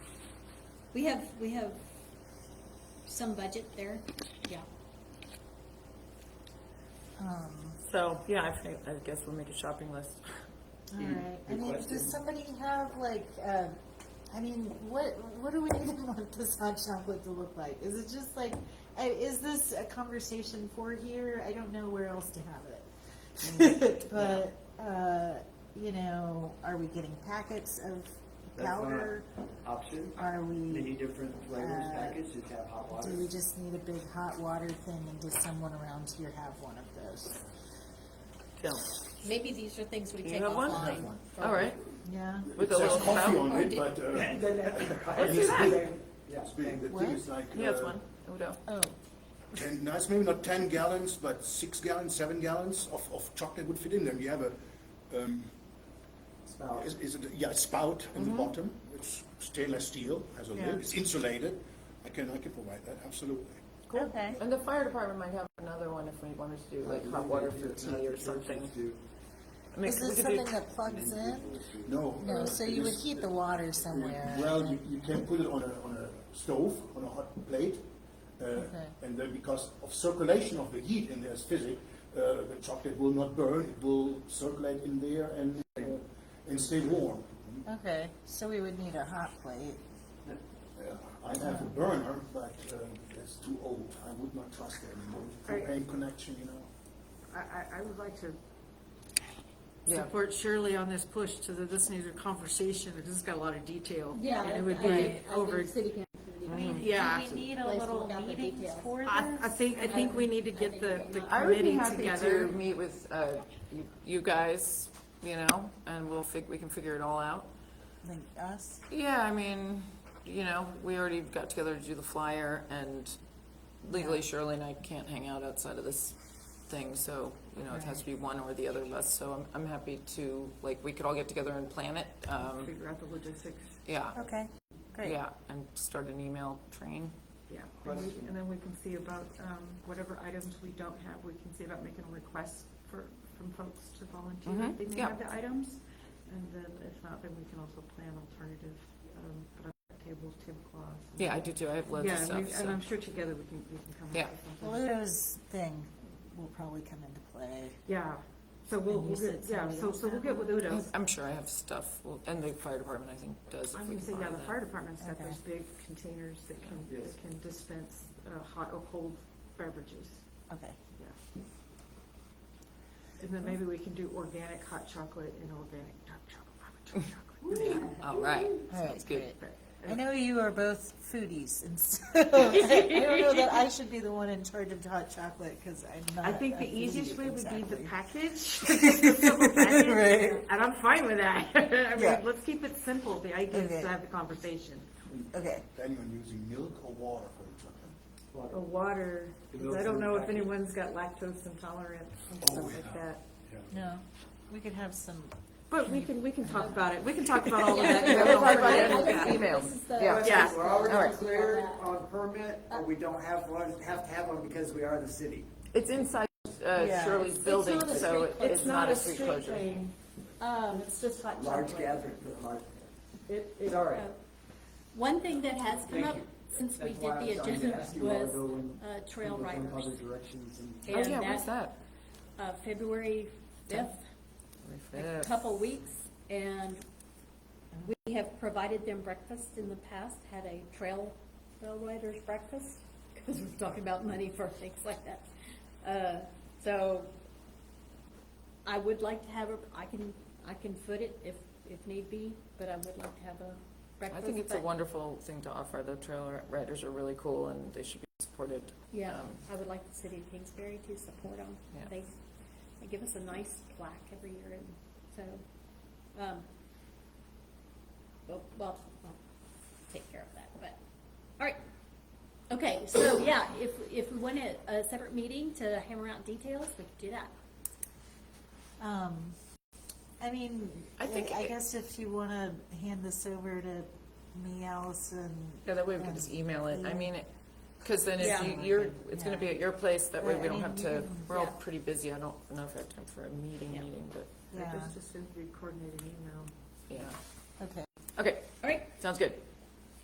We have, we have some budget there, yeah. Um, So, yeah, I think, I guess we'll make a shopping list. all right. I mean, question. does somebody have like, uh, I mean, what, what do we even want this hot chocolate to look like? Is it just like, I- is this a conversation for here? I don't know where else to have it. But, uh, you know, are we getting packets of That's not powder? an Option, um, Are we, many different flavors Uh, packaged, just have hot water. do we just need a big hot water thing and does someone around here have one of those? So, Maybe these are things we You take have one? I offline. have all right. Yeah? With a It says little coffee spout. on Or it, do- but, uh, Let's it's big, Yeah. it's big, the What? thing is like. He has uh, one, Udo. Oh, Ten, no, it's maybe not ten gallons, but six gallons, seven gallons of, of chocolate would fit in them. You have a, um, Spout. is, is it, yeah, a spout on the bottom, it's stainless steel, has a Yeah. lid, it's insulated. I can, I can provide that, absolutely. Okay. And the fire department might have another one if we wanted to do like hot water for tea or something. I mean, we is this could do- something that plugs in? No. No, uh, so it you would is- heat the water somewhere. Well, you, you can put it on a, on a stove, on a hot plate, uh, Okay. and then because of circulation of the heat in there's physics, uh, the chocolate will not burn, it will circulate in there and, uh, and stay warm. Okay, so we would need a hot plate. Uh, I have a burner, but uh, it's too old, I would not trust it anymore, propane connection, you know. I, I, I would like to Yeah. support Shirley on this push to the, this needs a conversation, because it's got a lot of detail. Yeah, And it would I be think- over, I mean, yeah. Do we need a Let's little work out the meeting details. for I, I this? think, I think we need to get the, the I would be committee happy to together. meet with, uh, you, you guys, you know, and we'll fig, we can figure it all out. Like us? Yeah, I mean, you know, we already got together to do the flyer and legally Shirley and I can't hang out outside of this thing, so, you know, it has to be one or the other of us, so I'm, I'm happy to, like, we could all get together and plan it, um, Figure out the logistics, yeah, Okay, great. yeah, and start an email train. yeah. And we- and then we can see about, um, whatever items we don't have, we can see about making a request for, from folks to volunteer. Mhm, They may yeah. have the items, and then if not, then we can also plan alternative, um, but I've got tables, tablecloths. and- Yeah, I do too, I have loads of Yeah, stuff, we- so. and I'm sure together we can, we can come up Yeah. with something. Pluto's thing will probably come into play. Yeah, so we'll, And you we'll get, said yeah, somebody so, else so we'll had get with Udo. I'm sure I have stuff, well, and the fire department, I think, does, I'm if we gonna can say, yeah, borrow the that. fire department's got Okay. those big containers that can, Yes. that can dispense, uh, hot or cold beverages, Okay. yeah. And then maybe we can do organic hot chocolate and organic dark chocolate, hot chocolate. All right, All sounds good. right, great. But- uh, I know you are both foodies, and so I don't know that I should be the one in charge of hot chocolate, because I'm not. I a think the easiest foodie way would be the exactly. package. The simple package. Right. And I'm fine with that. I mean, Yeah. let's keep it simple. The idea is Okay. to have the conversation. Okay, Planning on using milk or water for the chocolate? Or water, 'cause I don't know if anyone's got lactose intolerance and Oh, stuff like yeah. that. no, we could have some, But we can, we can talk about it. We can talk about all of that. Yeah, we'll talk about it in Yeah. the email, This is the- yeah. Yeah. We're already Alright. cleared on permit, or we don't have one, have to have one because we are the city. It's inside uh, Yeah. Shirley's building, not a so street- it's not a street closure. thing. Um, it's just hot Large chocolate. gathering, but large. It, It's it, all uh, right. One thing that has come Thank up you. since we That's did why I was the trying to agenda ask you all to go was, in- uh, trail look in riders. Other directions and. Oh, yeah, And what's that? Uh, February fifth, a couple weeks, and we have provided them breakfast in the past, had a trail, trail riders breakfast, because we're talking about money for things like that. Uh, so I would like to have a, I can, I can foot it if, if need be, but I would like to have a I breakfast. think it's a but- wonderful thing to offer. The trail riders are really cool and they should be supported. Yeah, Um, I would like the city of Kingsbury to support them. Yeah. They, they give us a nice plaque every year, and so, um, well, well, I'll take care of that, but, all right. Okay, so, yeah, if, if we want a, a separate meeting to hammer out details, we could do that. um, I mean, I I think it- guess if you want to hand this over to me, Allison. Yeah, that way we can just email it. I mean, because then if Yeah. you- you're, it's going to be at your place. That way Right, we I don't mean, have you to, can- we're all yeah. pretty busy. I don't know if I have time for a meeting, Yeah. meeting, but Yeah, it's just a coordinated email. yeah. okay. Okay, All right, sounds good.